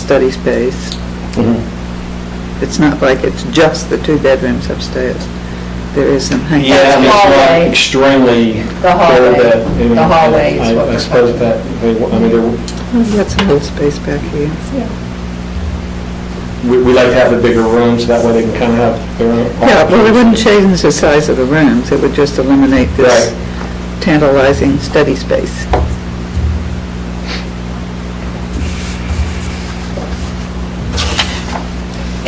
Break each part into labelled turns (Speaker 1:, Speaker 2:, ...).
Speaker 1: study space. It's not like it's just the two bedrooms upstairs. There is some hanging.
Speaker 2: Yeah, I mean, it's
Speaker 3: Hallway.
Speaker 2: not extremely.
Speaker 3: The
Speaker 2: clear
Speaker 3: hallway.
Speaker 2: that- I mean,
Speaker 3: The hallway is
Speaker 2: I-
Speaker 3: what
Speaker 2: I
Speaker 3: we're
Speaker 2: suppose that, they wa- I mean, there-
Speaker 1: We've got some little space back here.
Speaker 2: we we like to have the bigger rooms, that way they can kind of have their own.
Speaker 1: Yeah, well, it wouldn't change the size of the rooms, it would just eliminate this tantalizing study space.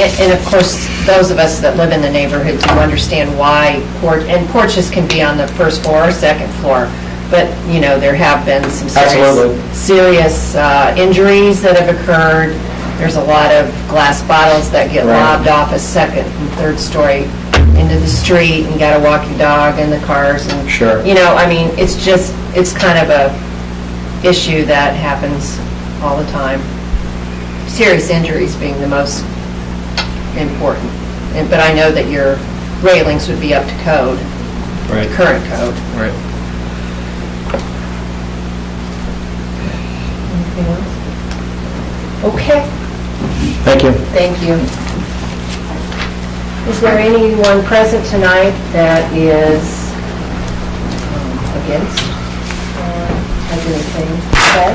Speaker 3: And and of course, those of us that live in the neighborhood do understand why, porch and porches can be on the first floor or second floor, but, you know, there have been some
Speaker 2: Absolutely.
Speaker 3: serious, serious uh, injuries that have occurred. There's a lot of glass bottles that get
Speaker 2: Right.
Speaker 3: lobbed off a second and third story into the street, and got a walking dog in the cars, and...
Speaker 2: Sure.
Speaker 3: You know, I mean, it's just, it's kind of a issue that happens all the time. Serious injuries being the most important. And- But I know that your railings would be up to code,
Speaker 2: Right,
Speaker 3: current code.
Speaker 2: right.
Speaker 3: Anything else? Okay,
Speaker 2: Thank you.
Speaker 3: thank you. Is there anyone present tonight that is um, against uh, has anything said?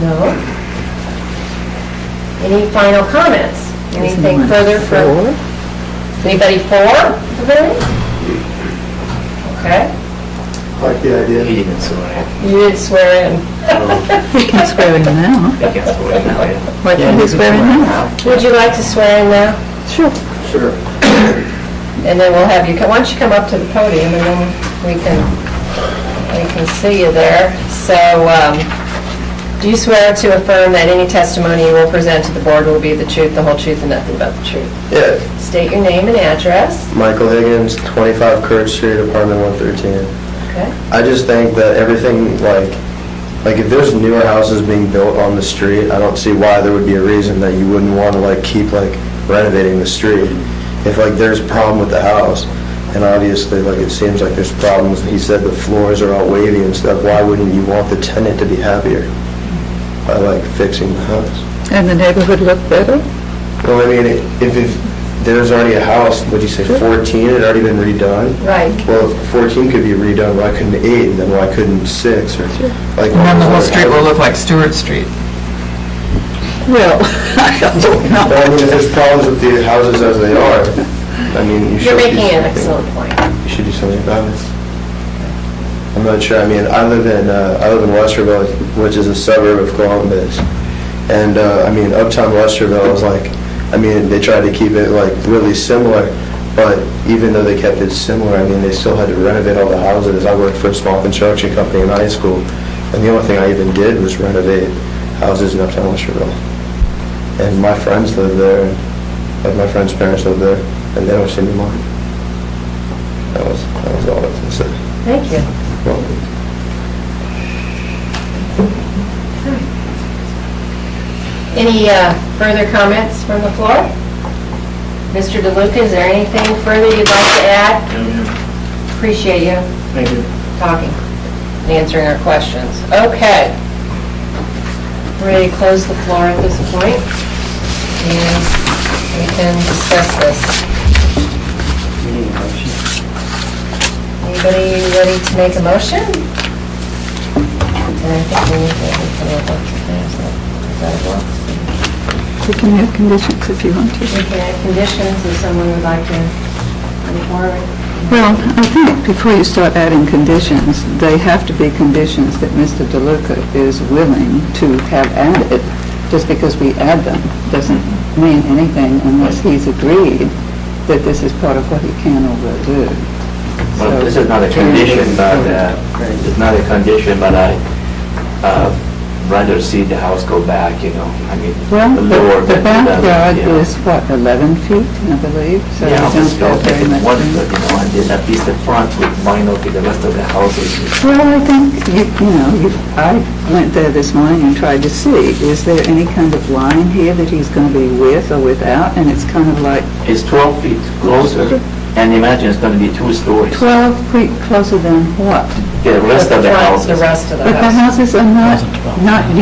Speaker 3: No? Any final comments? Anything
Speaker 1: Isn't that
Speaker 3: further from?
Speaker 1: four?
Speaker 3: Anybody for the variance? Okay.
Speaker 4: Like the idea.
Speaker 5: He didn't swear in.
Speaker 3: You did swear in.
Speaker 1: He can swear in now.
Speaker 5: He can swear in, yeah.
Speaker 1: Why can't he swear in now?
Speaker 3: Would you like to swear in now?
Speaker 1: Sure.
Speaker 4: Sure.
Speaker 3: And then we'll have you, co- why don't you come up to the podium and then we can, we can see you there. So, um, do you swear to affirm that any testimony you will present to the board will be the truth, the whole truth, and nothing but the truth?
Speaker 6: Yeah,
Speaker 3: State your name and address.
Speaker 6: Michael Higgins, 25 Courage Street, apartment 113.
Speaker 3: Okay.
Speaker 6: I just think that everything, like, like if there's newer houses being built on the street, I don't see why there would be a reason that you wouldn't want to like keep like renovating the street. If like there's a problem with the house, and obviously like it seems like there's problems, he said the floors are all wavy and stuff, why wouldn't you want the tenant to be happier by like fixing the house?
Speaker 1: And the neighborhood look better?
Speaker 6: Well, I mean, if, if there's already a house, would you say 14, it had already been redone?
Speaker 3: Right.
Speaker 6: Well, if 14 could be redone, why couldn't 8, and then why couldn't 6, or like...
Speaker 7: And then the whole street will look like Stewart Street.
Speaker 1: Well, I don't know.
Speaker 6: Well, I mean, if there's problems with the houses as they are, I mean, you should...
Speaker 3: You're
Speaker 6: do
Speaker 3: making an
Speaker 6: something.
Speaker 3: excellent point.
Speaker 6: You should do something about it. I'm not sure, I mean, I live in, uh, I live in Westerville, which is a suburb of Columbus, and, uh, I mean, Uptown Westerville is like, I mean, they tried to keep it like really similar, but even though they kept it similar, I mean, they still had to renovate all the houses. I worked for a small construction company in high school, and the only thing I even did was renovate houses in Uptown Westerville. And my friends live there, and, like, my friends' parents live there, and they don't see me mine. That was, that was all that was said.
Speaker 3: Thank you.
Speaker 6: Well,
Speaker 3: Any uh, further comments from the floor? Mr. DeLuca, is there anything further you'd like to add? Appreciate you
Speaker 2: Thank you.
Speaker 3: talking and answering our questions. Okay. Ready to close the floor at this point? And we can discuss this. Anybody ready to make a motion? And I think we need to, we can look up to this. Is that what?
Speaker 1: You can have conditions if you want to.
Speaker 3: We can add conditions if someone would like to move forward.
Speaker 1: Well, I think before you start adding conditions, they have to be conditions that Mr. DeLuca is willing to have added. Just because we add them doesn't mean anything unless he's agreed that this is part of what he can or will do.
Speaker 5: Well,
Speaker 1: So-
Speaker 5: this is not a condition, but, uh, it's not a condition, but I, uh, rather see the house go back, you know, I mean,
Speaker 1: Well,
Speaker 5: lower
Speaker 1: the- the
Speaker 5: than the-
Speaker 1: backyard
Speaker 5: yeah.
Speaker 1: is, what, 11 feet, I believe? So
Speaker 5: Yeah,
Speaker 1: we
Speaker 5: just
Speaker 1: don't
Speaker 5: go
Speaker 1: have
Speaker 5: take
Speaker 1: very
Speaker 5: it
Speaker 1: much
Speaker 5: one,
Speaker 1: room.
Speaker 5: but, you know, and then at least the front with vinyl to the rest of the house is
Speaker 1: Well, I think, you you know, you- I went there this morning and tried to see, is there any kind of line here that he's going to be with or without? And it's kind of like
Speaker 5: It's 12 feet closer, and imagine it's going to be two stories.
Speaker 1: 12 feet closer than what?
Speaker 5: The rest of the
Speaker 3: front,
Speaker 5: house
Speaker 3: The
Speaker 5: is
Speaker 3: rest of the
Speaker 1: But the
Speaker 3: house.
Speaker 1: houses are not, not